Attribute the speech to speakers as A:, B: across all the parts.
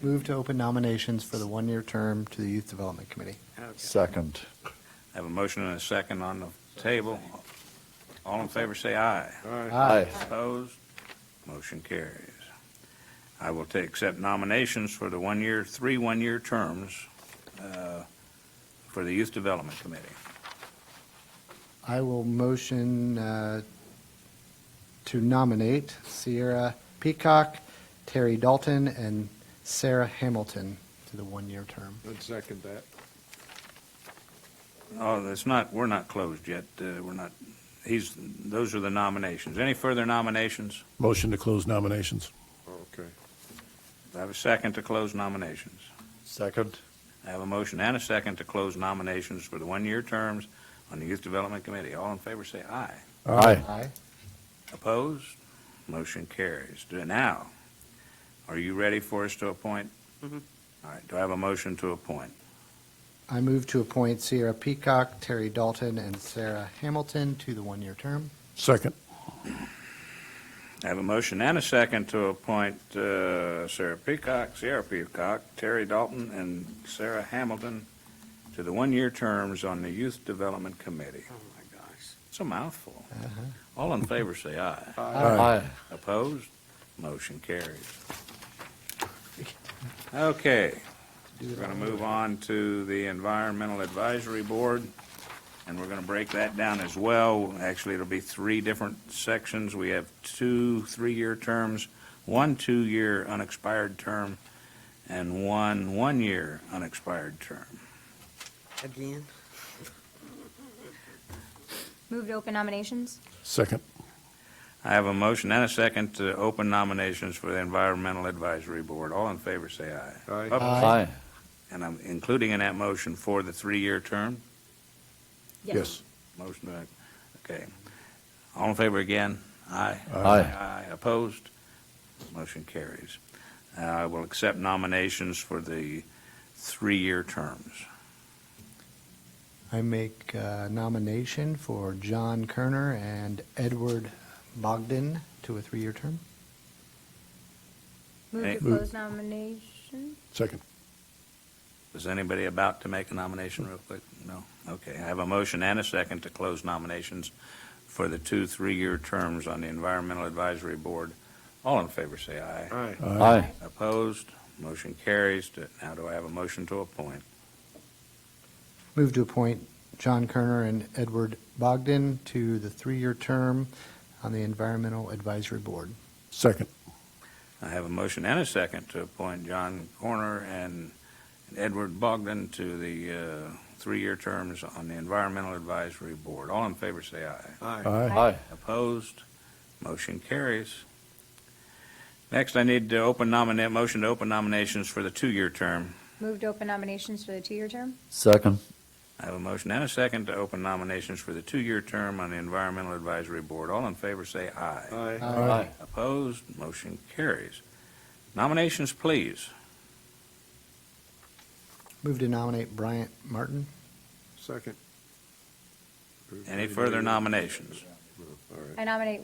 A: Move to open nominations for the one-year term to the Youth Development Committee.
B: Second.
C: I Have a motion and a second on the table. All in favor, say aye.
B: Aye.
C: Opposed? Motion carries. I will take, accept nominations for the one-year, three one-year terms uh, for the Youth Development Committee.
A: I will motion uh, to nominate Sierra Peacock, Terry Dalton, and Sarah Hamilton to the one-year term.
D: I'd second that.
C: Oh, that's not, we're not closed yet. Uh, We're not, he's, those are the nominations. Any further nominations?
E: Motion to close nominations.
D: Okay.
C: I have a second to close nominations.
B: Second.
C: I have a motion and a second to close nominations for the one-year terms on the Youth Development Committee. All in favor, say aye.
B: Aye.
A: Aye.
C: Opposed? Motion carries. Do- Now, are you ready for us to appoint?
F: Mm-hmm.
C: All right, do I have a motion to appoint?
A: I move to appoint Sierra Peacock, Terry Dalton, and Sarah Hamilton to the one-year term.
E: Second.
C: I have a motion and a second to appoint uh, Sarah Peacock, Sierra Peacock, Terry Dalton, and Sarah Hamilton to the one-year terms on the Youth Development Committee.
F: Oh, my gosh.
C: It's a mouthful. All in favor, say aye.
B: Aye.
C: Opposed? Motion carries. Okay, we're going to move on to the Environmental Advisory Board, and we're going to break that down as well. Actually, it'll be three different sections. We have two three-year terms, one two-year unexpired term, and one one-year unexpired term.
F: Again?
G: Move to open nominations?
E: Second.
C: I have a motion and a second to open nominations for the Environmental Advisory Board. All in favor, say aye.
D: Aye.
C: Up-
B: Aye.
C: And I'm including in that motion for the three-year term?
E: Yes.
C: Motion, by- okay. All in favor again? Aye.
B: Aye.
C: Aye, opposed? Motion carries. Uh, I will accept nominations for the three-year terms.
A: I make uh, nomination for John Kerner and Edward Bogdan to a three-year term.
G: Move
C: Hey.
G: to
E: Move.
G: close nomination?
E: Second.
C: Is anybody about to make a nomination real quick? No? Okay, I have a motion and a second to close nominations for the two three-year terms on the Environmental Advisory Board. All in favor, say aye.
D: Aye.
B: Aye.
C: Opposed? Motion carries. Do- Now do I have a motion to appoint?
A: Move to appoint John Kerner and Edward Bogdan to the three-year term on the Environmental Advisory Board.
E: Second.
C: I have a motion and a second to appoint John Corner and Edward Bogdan to the uh, three-year terms on the Environmental Advisory Board. All in favor, say aye.
D: Aye.
E: Aye.
B: Aye.
C: Opposed? Motion carries. Next, I need to open nominate, motion to open nominations for the two-year term.
G: Move to open nominations for the two-year term?
B: Second.
C: I have a motion and a second to open nominations for the two-year term on the Environmental Advisory Board. All in favor, say aye.
D: Aye.
B: Aye.
C: Opposed? Motion carries. Nominations, please.
A: Move to nominate Bryant Martin.
D: Second.
C: Any further nominations?
D: All right.
G: I nominate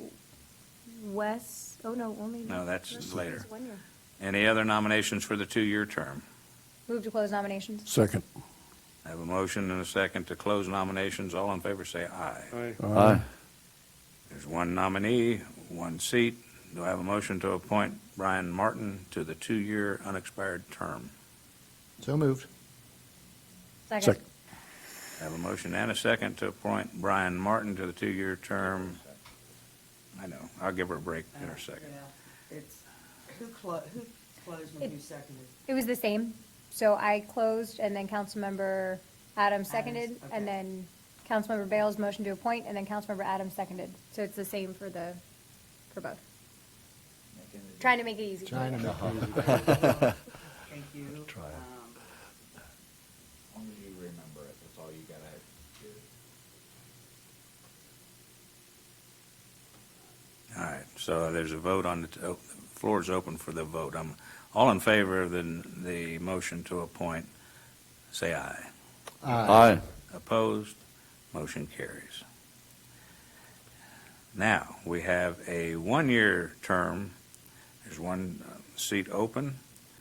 G: Wes, oh no, only.
C: No, that's
G: Wes is
C: later.
G: one year.
C: Any other nominations for the two-year term?
G: Move to close nominations?
E: Second.
C: I have a motion and a second to close nominations. All in favor, say aye.
D: Aye.
B: Aye.
C: There's one nominee, one seat. Do I have a motion to appoint Brian Martin to the two-year unexpired term?
A: So moved.
G: Second.
E: Second.
C: I have a motion and a second to appoint Brian Martin to the two-year term. I know, I'll give her a break in a second.
F: Yeah. It's, who clo, who closed and who seconded?
G: It was the same, so I closed, and then Councilmember Adams
F: Adams,
G: seconded,
F: okay.
G: and then Councilmember Bales motioned to appoint, and then Councilmember Adams seconded. So it's the same for the, for both. Trying to make it easy.
A: Trying to make it easy.
F: Thank you.
B: Try it.
F: Um,
H: As long as you remember it, that's all you gotta do.
C: All right, so there's a vote on, the oh, the floor is open for the vote. I'm all in favor of the, the motion to appoint, say aye.
A: Uh,
B: Aye.
C: Opposed? Motion carries. Now, we have a one-year term. There's one uh, seat open.